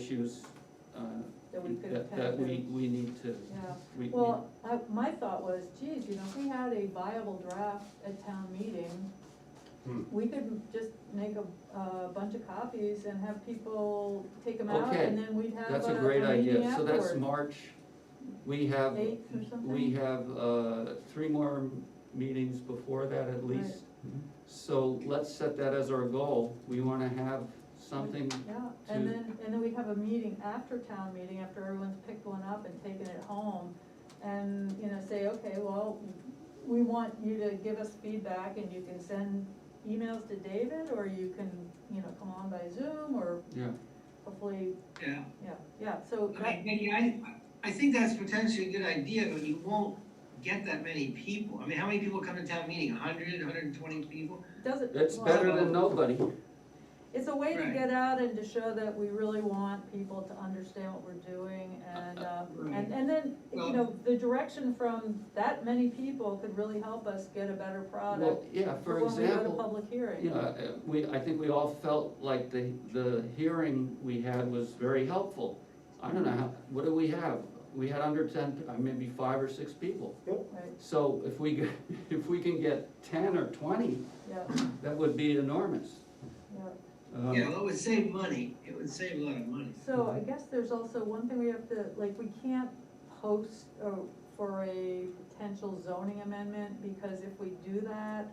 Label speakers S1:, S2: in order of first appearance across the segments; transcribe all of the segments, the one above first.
S1: issues uh,
S2: that we could have
S1: that, that
S2: had.
S1: we,
S2: to-
S1: we need to,
S2: Yeah,
S1: we, we-
S2: well, I, my thought was, geez, you know, if we had a viable draft at town meeting,
S3: Hmm.
S2: we could just make a, a bunch of copies and have people take them out,
S1: Okay,
S2: and then we'd have
S1: that's a
S2: a-
S1: great
S2: a meeting
S1: idea, so that's
S2: afterward.
S1: March, we have,
S2: Eighth or something?
S1: we have, uh, three more meetings before that at least.
S3: Mhm.
S1: So let's set that as our goal, we wanna have something,
S2: Yeah, and
S1: to-
S2: then, and then we have a meeting after town meeting, after everyone's picked one up and taken it home, and, you know, say, okay, well, we want you to give us feedback, and you can send emails to David, or you can, you know, come on by Zoom, or
S1: yeah,
S2: hopefully,
S4: Yeah,
S2: yeah, yeah, so
S4: I mean,
S2: that,
S4: Nikki, I, I think that's potentially a good idea, but you won't get that many people. I mean, how many people come to town meeting? A hundred, hundred and twenty people?
S2: doesn't.
S1: it's
S2: well,
S1: better than nobody.
S2: It's a way to
S4: Right.
S2: get out and to show that we really want people to understand what we're doing and, uh,
S4: Right.
S2: and, and then, you
S4: Well-
S2: know, the direction from that many people could really help us get a better
S1: Well,
S2: product
S1: yeah,
S2: for
S1: for
S2: when we go to
S1: example,
S2: public hearing.
S1: you know, uh, we, I think we all felt like the, the hearing we had was very helpful. I don't know, how what do we have? We had under ten, uh, maybe five or six people.
S2: Right,
S1: So if we, get- if we can get ten or twenty,
S2: yeah,
S1: that would be enormous.
S2: yeah.
S1: Um,
S4: Yeah, well, it would save money. It would save a lot of money.
S2: So I guess there's also one thing we have to, like, we can't post uh, for a potential zoning amendment, because if we do that,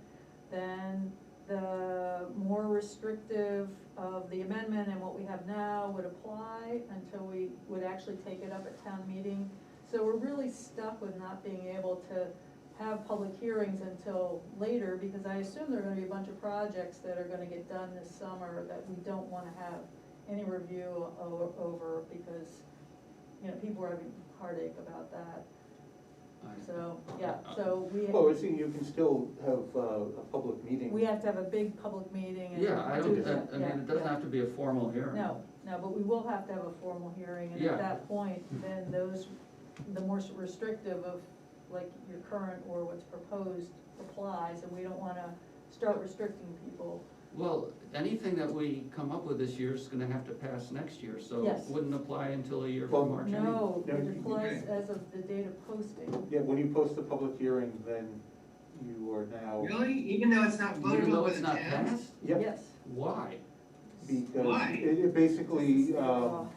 S2: then the more restrictive of the amendment and what we have now would apply until we would actually take it up at town meeting. So we're really stuck with not being able to have public hearings until later, because I assume there are gonna be a bunch of projects that are gonna get done this summer that we don't wanna have any review o- over, because, you know, people are having heartache about that,
S1: I-
S2: so, yeah, so we,
S5: Well, it's, you can still have uh, a public meeting.
S2: we have to have a big public meeting and.
S1: Yeah, I don't,
S2: do
S1: I-
S2: that,
S1: I mean,
S2: yeah,
S1: it doesn't
S2: yeah.
S1: have to be a formal hearing.
S2: No, no, but we will have to have a formal hearing, and
S1: Yeah.
S2: at that point, then those, the more restrictive of, like, your current or what's proposed applies, and we don't wanna start restricting people.
S1: Well, anything that we come up with this year is gonna have to pass next year, so it
S2: Yes.
S1: wouldn't apply until a year
S5: Well,
S1: from March. anyway.
S2: No,
S5: No, you-
S2: it applies as of the date of posting,
S5: Yeah, when you post the public hearing, then you are now.
S4: Really? Even though it's not
S1: Oh. Even
S4: voted
S1: though
S4: on by
S1: it's
S4: the
S1: not
S4: town?
S1: passed,
S5: Yep,
S2: yes.
S1: why?
S5: because
S4: Why?
S5: it, it basically,
S2: Uh,
S5: um,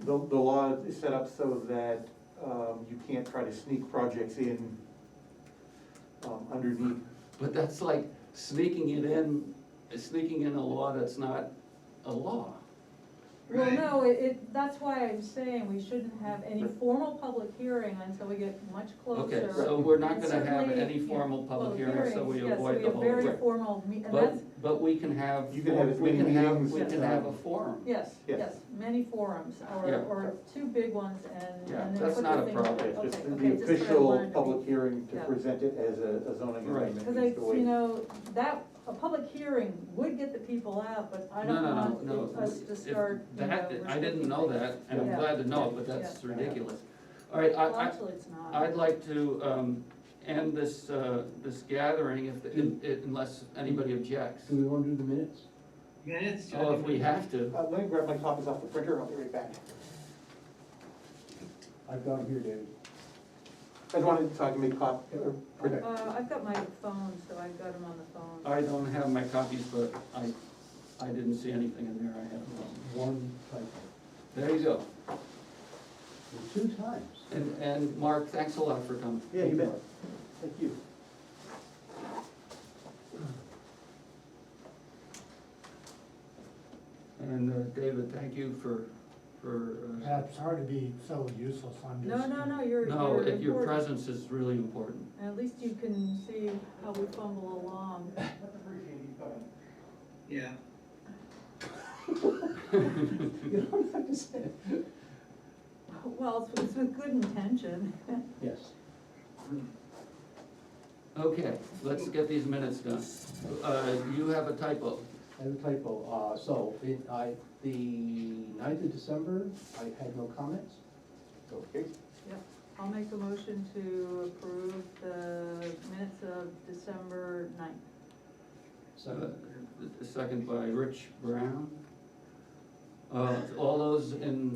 S5: the, the law is set up so that, um, you can't try to sneak projects in, um, underneath.
S1: But that's like sneaking it in, sneaking in a law that's not a law.
S2: Well,
S4: Right.
S2: no, it, it, that's why I'm saying we shouldn't have any formal public hearing until we get much
S1: Okay,
S2: closer.
S1: so we're not
S2: And
S1: gonna have
S2: certainly,
S1: any
S2: yeah,
S1: formal public hearings, so we
S2: hearings, yes,
S1: avoid the whole.
S2: we have very
S1: Right.
S2: formal, me- and that's,
S1: But, but we can have.
S5: You can have as
S1: we
S5: many
S1: can have-
S5: meetings
S1: We
S5: as,
S1: can have
S5: uh,
S1: a forum.
S2: yes,
S5: Yes.
S2: yes, many forums, or,
S1: Yeah.
S2: or two big ones and.
S1: Yeah,
S2: and then
S1: that's
S2: put the
S1: not a
S2: thing-
S1: problem.
S2: Okay,
S5: It's just
S2: okay,
S5: the
S2: just what I wanted
S5: official
S2: to be-
S5: public hearing to
S2: Yeah.
S5: present it as a a zoning
S1: Right.
S5: amendment.
S2: Cause I,
S5: is the way-
S2: you know, that, a public hearing would get the people out, but I
S1: No,
S2: don't
S1: no,
S2: want
S1: no,
S2: it-
S1: no.
S2: us to
S1: If
S2: start, you know,
S1: That, I didn't
S2: restricting
S1: know
S2: things.
S1: that, and I'm
S2: Yeah.
S1: glad to know, it, but that's ridiculous. All right, I,
S2: Well,
S1: I,
S2: actually, it's not.
S1: I'd like to, um, end this, uh, this gathering if, if- unless anybody objects.
S6: Do we want to do the minutes?
S4: Minutes?
S1: Oh, if we have to,
S5: Uh, let me grab my copies off the printer, I'll be right back.
S6: I've got them here, David.
S5: I just wanted to talk to make cop, or print
S6: Okay.
S2: Uh, I've got my phone, so I've got them on the phone.
S1: I don't have my copies, but I, I didn't see anything in there, I have it all.
S6: One typo,
S1: There you go,
S6: Well, two times.
S1: and, and Mark, thanks a lot for coming.
S5: Yeah, you bet. Thank you.
S1: And, uh, David, thank you for, for, uh,
S7: Pat, sorry to be so useless, I'm
S2: No,
S7: just.
S2: no, no, you're,
S1: no,
S2: you're
S1: it- your
S2: important.
S1: presence is really important.
S2: And at least you can see how we fumble along.
S4: Yeah.
S6: You don't have to say it.
S2: Well, it's, it's with good intention.
S6: Yes.
S1: Okay, let's get these minutes done. Uh, you have a typo,
S6: I have a typo, uh, so, it, I, the ninth of December, I had no comments.
S5: Okay.
S2: I'll make a motion to approve the minutes of December ninth.
S1: uh,
S6: So,
S1: second by Rich Brown. Uh, all those in